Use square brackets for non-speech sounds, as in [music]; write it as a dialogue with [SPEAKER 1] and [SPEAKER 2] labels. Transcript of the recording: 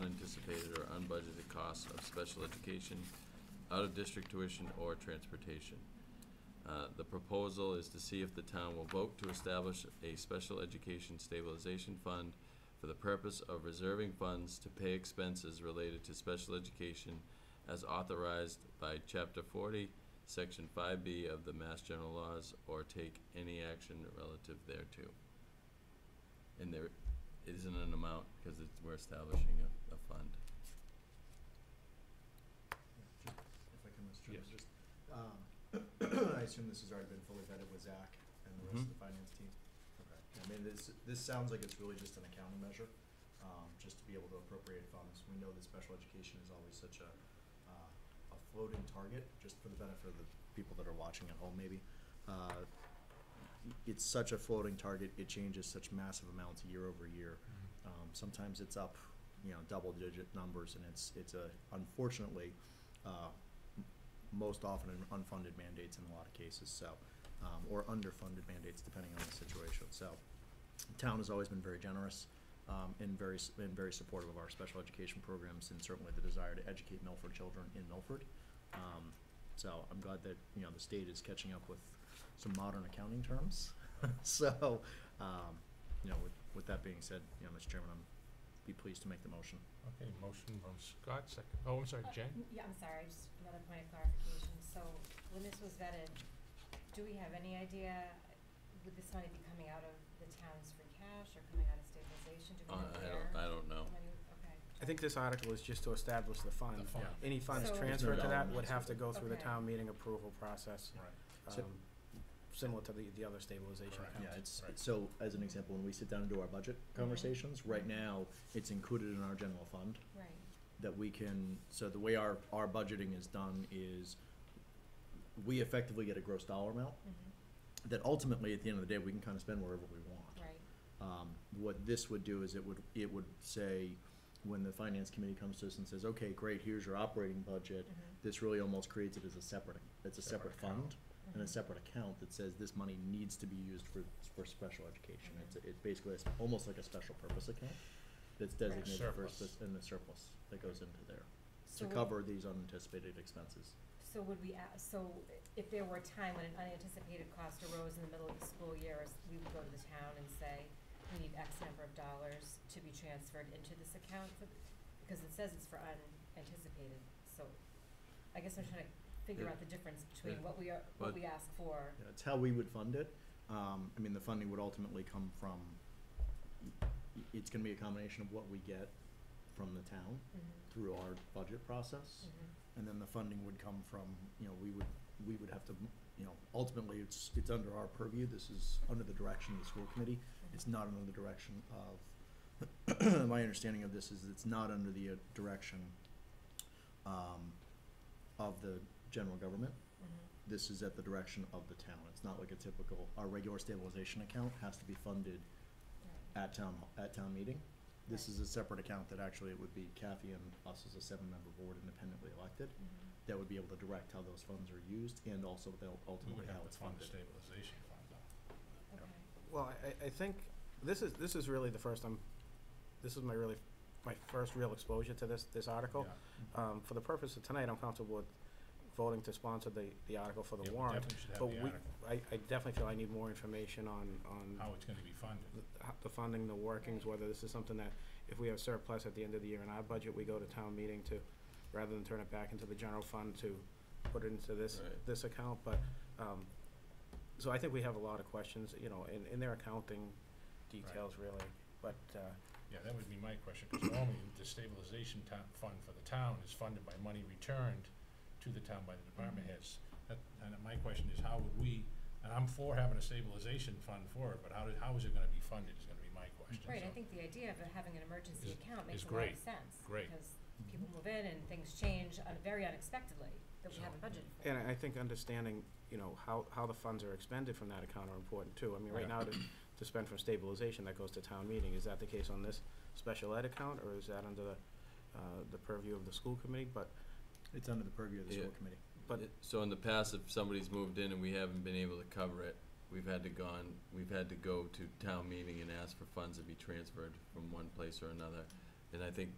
[SPEAKER 1] unanticipated or unbudgeted costs of special education, out-of-district tuition, or transportation. Uh, The proposal is to see if the town will vote to establish a special education stabilization fund for the purpose of reserving funds to pay expenses related to special education as authorized by Chapter 40, Section 5B of the Mass General Laws, or take any action relative thereto. And there isn't an amount, because it's, we're establishing a, a fund.
[SPEAKER 2] Just- If I can, Mr. Chairman,
[SPEAKER 1] Yes.
[SPEAKER 2] just, um, [clears throat] I assume this has already been fully vetted with Zach and the rest
[SPEAKER 1] Mhm.
[SPEAKER 2] of the finance team? Okay. I mean, this, this sounds like it's really just an accounting measure, um, just to be able to appropriate funds. We know that special education is always such a, uh, a floating target, just for the benefit of the people that are watching at home maybe. Uh, It's such a floating target, it changes such massive amounts year over year. Um, sometimes it's up, you know, double-digit numbers, and it's, it's a, unfortunately, uh, m- most often an unfunded mandates in a lot of cases, so, um, or underfunded mandates, depending on the situation. So, the town has always been very generous um, and very, s- and very supportive of our special education programs, and certainly the desire to educate Milford children in Milford. Um, So I'm glad that, you know, the state is catching up with some modern accounting terms. [laughs] So, um, you know, with, with that being said, you know, Mr. Chairman, I'm, be pleased to make the motion.
[SPEAKER 3] Okay, motion from Scott, second, oh, I'm sorry,
[SPEAKER 4] Uh,
[SPEAKER 3] Jen?
[SPEAKER 4] Yeah, I'm sorry, just another point of clarification. So when this was vetted, do we have any idea, would this money be coming out of the town's free cash or coming out of stabilization? Do we
[SPEAKER 1] Uh,
[SPEAKER 4] know
[SPEAKER 1] I
[SPEAKER 4] where?
[SPEAKER 1] don't, I don't know.
[SPEAKER 4] the money- Okay.
[SPEAKER 5] I think this article is just to establish the
[SPEAKER 3] The
[SPEAKER 5] fund.
[SPEAKER 3] fund.
[SPEAKER 5] Any funds
[SPEAKER 4] So-
[SPEAKER 5] transferred to that would have to go through the
[SPEAKER 4] Okay.
[SPEAKER 5] town meeting approval process,
[SPEAKER 2] Right. So-
[SPEAKER 5] um, similar to the, the other stabilization
[SPEAKER 3] Correct.
[SPEAKER 5] accounts.
[SPEAKER 2] Yeah, it's, so as an example, when we sit down and do our budget conversations, right now, it's included in our general fund
[SPEAKER 4] Right,
[SPEAKER 2] that we can, so the way our, our budgeting is done is we effectively get a gross dollar amount Mm-hmm.
[SPEAKER 4] mhm,
[SPEAKER 2] that ultimately, at the end of the day, we can kind of spend wherever we want.
[SPEAKER 4] right,
[SPEAKER 2] Um, what this would do is it would, it would say, when the finance committee comes to us and says, okay, great, here's your operating budget,
[SPEAKER 4] mhm,
[SPEAKER 2] this really almost creates it as a separate, it's a
[SPEAKER 3] Separate
[SPEAKER 2] separate fund and a
[SPEAKER 4] mhm.
[SPEAKER 2] separate account that says this money needs to be used for, for special education. It's, it's basically, it's almost like a special purpose account that's designated for,
[SPEAKER 3] Surplus.
[SPEAKER 2] spec- and the surplus that goes into there
[SPEAKER 4] So
[SPEAKER 2] to
[SPEAKER 4] would-
[SPEAKER 2] cover these unanticipated expenses.
[SPEAKER 4] So would we, a- so if there were a time when an unanticipated cost arose in the middle of the school year, is- we would go to the town and say, we need X number of dollars to be transferred into this account for, because it says it's for unanticipated, so I guess I'm trying to figure out the difference
[SPEAKER 1] Yeah.
[SPEAKER 4] between what we are, what
[SPEAKER 1] But-
[SPEAKER 4] we ask for.
[SPEAKER 2] Yeah, It's how we would fund it. Um, I mean, the funding would ultimately come from, i- it's gonna be a combination of what we get from the town
[SPEAKER 4] Mhm,
[SPEAKER 2] through our budget process.
[SPEAKER 4] mhm,
[SPEAKER 2] And then the funding would come from, you know, we would, we would have to, you know, ultimately, it's, it's under our purview. This is under the direction of the school committee.
[SPEAKER 4] mhm.
[SPEAKER 2] It's not under the direction of, [clears throat] my understanding of this is it's not under the uh, direction um, of the general government.
[SPEAKER 4] Mhm,
[SPEAKER 2] This is at the direction of the town. It's not like a typical, our regular stabilization account has to be funded
[SPEAKER 4] right.
[SPEAKER 2] at town, at town meeting. This
[SPEAKER 4] Right.
[SPEAKER 2] is a separate account that actually it would be Kathy and us as a seven-member board independently elected
[SPEAKER 4] Mhm,
[SPEAKER 2] that would be able to direct how those funds are used and also they'll
[SPEAKER 3] We
[SPEAKER 2] ultimately
[SPEAKER 3] would
[SPEAKER 2] how
[SPEAKER 3] have to
[SPEAKER 2] it's
[SPEAKER 3] fund the
[SPEAKER 2] funded.
[SPEAKER 3] stabilization fund, though.
[SPEAKER 2] Yep.
[SPEAKER 4] Okay,
[SPEAKER 5] Well, I- I, I think, this is, this is really the first, I'm, this is my really, my first real exposure to this, this article.
[SPEAKER 3] Yeah,
[SPEAKER 5] Um, for the purpose of tonight, I'm comfortable with voting to sponsor the, the article for
[SPEAKER 3] yeah,
[SPEAKER 5] the
[SPEAKER 3] we
[SPEAKER 5] warrant.
[SPEAKER 3] Definitely should have
[SPEAKER 5] But
[SPEAKER 3] the
[SPEAKER 5] we,
[SPEAKER 3] article,
[SPEAKER 5] I, I definitely feel I need more information on, on
[SPEAKER 3] how it's gonna be funded.
[SPEAKER 5] the- how- the funding, the workings, whether this is something that, if we have surplus at the end of the year in our budget, we go to town meeting to, rather than turn it back into the general fund to put it into this,
[SPEAKER 1] Right.
[SPEAKER 5] this account, but, um, so I think we have a lot of questions, you know, in, in their accounting details really, but, uh,
[SPEAKER 3] Yeah, that would be my question, because normally the stabilization town, fund for the town is funded by money returned to the town by the
[SPEAKER 5] Mm-hmm.
[SPEAKER 3] department heads. That, and my question is, how would we, and I'm for having a stabilization fund for it, but how did, how is it gonna be funded is gonna be my question.
[SPEAKER 4] Right, I
[SPEAKER 3] so-
[SPEAKER 4] think the idea of having an emergency
[SPEAKER 3] Is-
[SPEAKER 4] account
[SPEAKER 3] is
[SPEAKER 4] makes a lot
[SPEAKER 3] great,
[SPEAKER 4] of sense.
[SPEAKER 3] great.
[SPEAKER 4] Because people move in and things change un- very unexpectedly that we
[SPEAKER 3] So-
[SPEAKER 4] haven't budgeted for.
[SPEAKER 5] and I think understanding, you know, how, how the funds are expended from that account are important too. I mean, right
[SPEAKER 3] Yeah.
[SPEAKER 5] now, to, to spend from stabilization, that goes to town meeting, is that the case on this special ed account, or is that under the, uh, the purview of the school committee, but
[SPEAKER 2] It's under the purview of the school
[SPEAKER 1] Yeah.
[SPEAKER 2] committee.
[SPEAKER 5] But-
[SPEAKER 1] It- So in the past, if somebody's moved in and we haven't been able to cover it, we've had to gone, we've had to go to town meeting and ask for funds to be transferred from one place or another. And I think